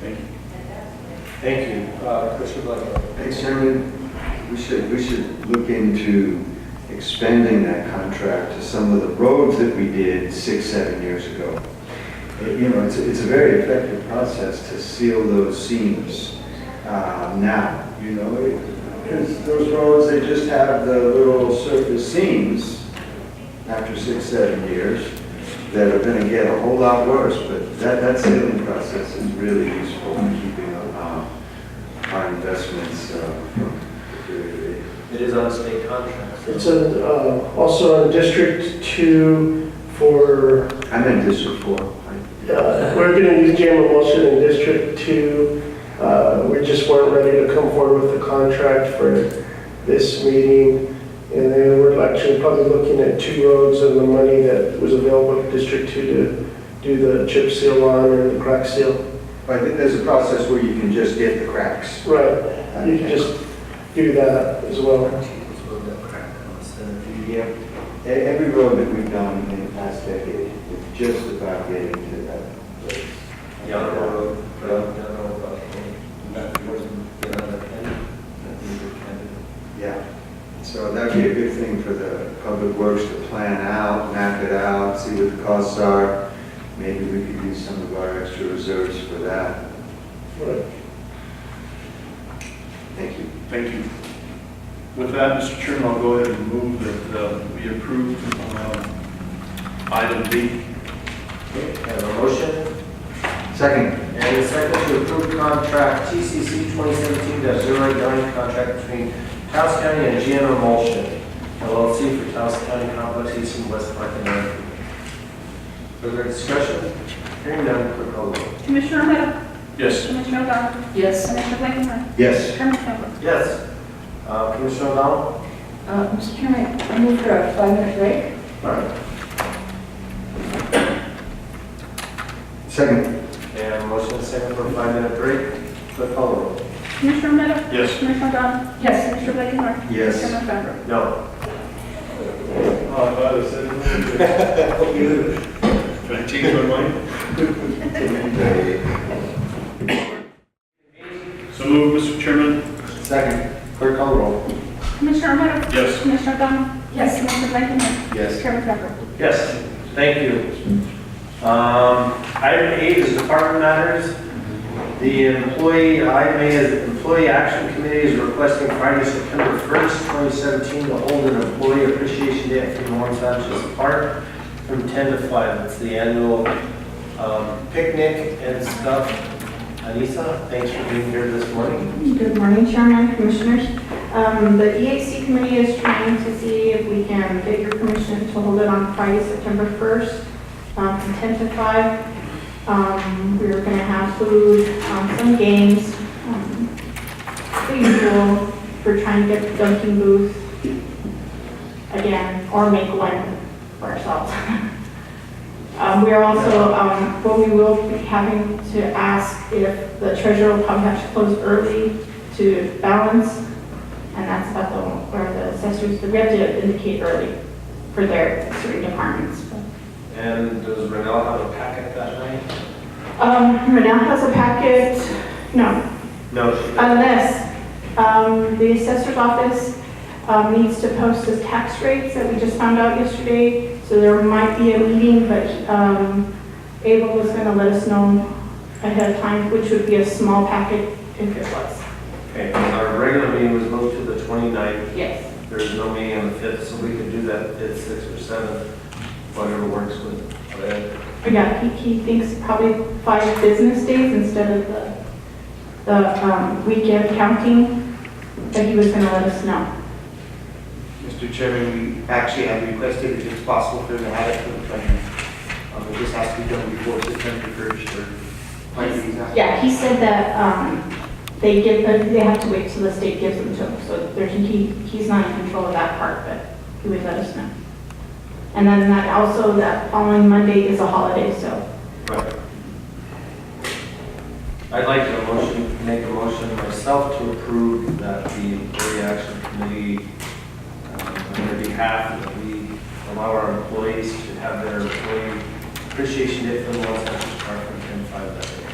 Thank you. Thank you, Uh, Commissioner Blankenhorn. Thanks, Chairman. We should, we should look into expanding that contract to some of the roads that we did six, seven years ago. It- You know, it's, it's a very effective process to seal those seams uh, now, you know? it- Because those roads, they just have the little surface seams after six, seven years that are gonna get a whole lot worse, but that, that sealing process is really useful in keeping uh, our investments uh, from deteriorating. It is on a state contract. so- It's on, uh, also on District Two for, I meant District Four. I- uh, we're gonna use Jam Emulsion in District Two. Uh, we just weren't ready to come forward with the contract for this meeting. And then we're actually probably looking at two roads and the money that was available in District Two to do the chip seal on or the crack seal. But I think there's a process where you can just get the cracks. Right, you can just do that as well. It's a little bit of crack on the center. Yeah, e- every road that we've done in the past decade, is just about getting to that place. Yellow road, brown, yellow, about any, not yours, you know, that kind of- that you would kind of- Yeah, so that'd be a good thing for the public works to plan out, map it out, see what the costs are. Maybe we could use some of our extra reserves for that. Right. Thank you. Thank you. With that, Mr. Chairman, I'll go ahead and move that uh, we approve um, item B. Okay, I have a motion Second, and a second to approve contract TCC 2017-09, contract between Taos County and GM Emulsion LLC for Taos County Complex East and West Park and Avenue. Further discussion? Hearing none, clerk call the roll. Commissioner Romero, Yes. Commissioner O'Donnell, Yes. Commissioner Blakenhart, yes. Chairman Kent. Yes. Uh, Commissioner O'Donnell? Uh, Mr. Chairman, I move for a five-minute break. All right. Second, And motion and second for a five-minute break. Clerk call the roll. Commissioner Romero, Yes. Commissioner O'Donnell, Yes. Commissioner Blakenhart, yes. Chairman Kent. No. Can I change my mind? So move, Mr. Chairman. Second, Clerk call the roll. Commissioner Romero, Yes. Commissioner O'Donnell, Yes. Commissioner Blakenhart, yes. Chairman Kent. Yes, thank you. Um, Item eight is department matters. The employee, item eight is employee action committee is requesting Friday, September 1st, 2017, to hold an employee appreciation day at Fremont Sanchez Park from 10 to 5. It's the annual um, picnic and stuff. Anissa, thanks for being here this morning. Good morning, Chairman, Commissioners. Um, The EAC committee is trying to see if we can get your permission to hold it on Friday, September 1st, um, from 10 to 5. Um, We're going to have food, um, some games, um, the usual, we're trying to get the dunking booth again, or make one for ourselves. Um, We are also, um, well, we will be having to ask if the treasurer will probably have to close early to balance, and that's about the, where the assessors, we have to indicate early for their certain departments. And does Renell have a packet that night? Um, Renell has a packet, no, No, she doesn't. Unless um, the assessor's office um, needs to post the tax rates that we just found out yesterday, so there might be a meeting, but um, Abel was going to let us know ahead of time, which would be a small packet if it was. Okay, our regular meeting was moved to the 29th. Yes. There's no meeting on the 5th, so we could do that at 6 or 7, whatever works with. Brad. Oh, Yeah, he- he thinks probably five business days instead of the, the um, weekend counting, but he was going to let us know. Mr. Chairman, we actually have requested if it's possible for them to have it for the planning. Um, it just has to be done before September first or planning. Yeah, he said that, um, they give, they have to wait till the state gives them to them, so there's, he, he's not in control of that part, but he would let us know. And then that also, that following Monday is a holiday, so, I'd like to motion, make a motion myself to approve that the employee action committee, um, on their behalf, that we allow our employees to have their employee appreciation day for the Los Angeles Park on 10/5 that day.